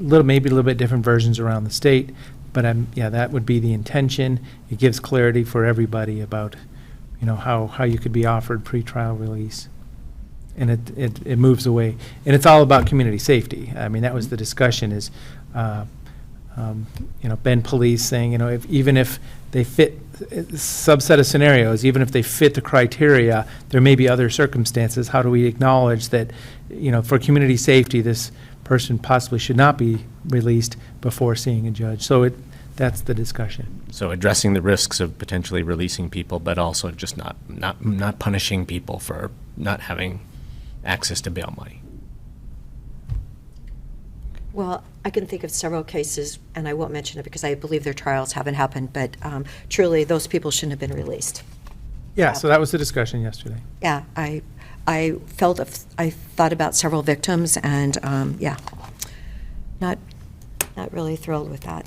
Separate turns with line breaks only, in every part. little, maybe a little bit different versions around the state, but i yeah, that would be the intention. It gives clarity for everybody about, you know, how, how you could be offered pretrial release. And it, it, it moves away, and it's all about community safety. I mean, that was the discussion is, uh, um, you know, Ben Police saying, you know, if, even if they fit, subset of scenarios, even if they fit the criteria, there may be other circumstances. How do we acknowledge that, you know, for community safety, this person possibly should not be released before seeing a judge? So it, that's the discussion.
So addressing the risks of potentially releasing people, but also just not, not, not punishing people for not having access to bail money.
Well, I can think of several cases, and I won't mention it because I believe their trials haven't happened, but um, truly, those people shouldn't have been released.
Yeah, so that was the discussion yesterday.
Yeah, I, I felt, of- I thought about several victims, and, um, yeah, not, not really thrilled with that.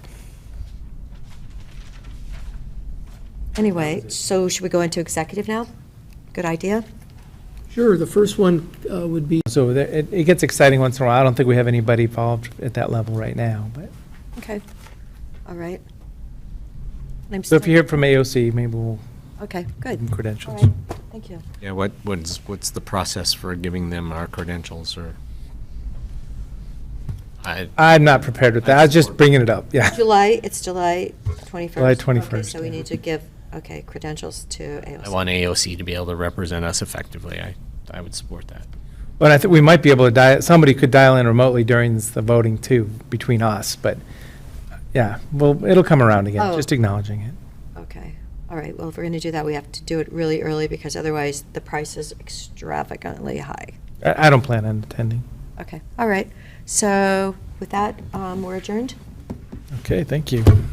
Anyway, so should we go into executive now? Good idea?
Sure, the first one uh, would be,
So there- it, it gets exciting once in a while. I don't think we have anybody involved at that level right now, but
Okay, all right. I'm
so if you
still-
hear from AOC, maybe we'll
Okay,
give
good,
them
all
credentials.
right, thank you.
Yeah, what, what's, what's the process for giving them our credentials or? I,
I'm not prepared with that. I was just bringing it up, yeah.
July, it's July 21st?
July
Okay,
21st,
so we
yeah.
need to give, okay, credentials to
I
AOC.
want AOC to be able to represent us effectively. I, I would support that.
But I think we might be able to dial, somebody could dial in remotely during the voting too, between us, but, yeah, well, it'll come around again,
Oh.
just acknowledging it.
Okay, all right, well, if we're going to do that, we have to do it really early because otherwise the price is extravagantly high.
I, I don't plan on attending.
Okay, all right, so with that, um, we're adjourned?
Okay, thank you.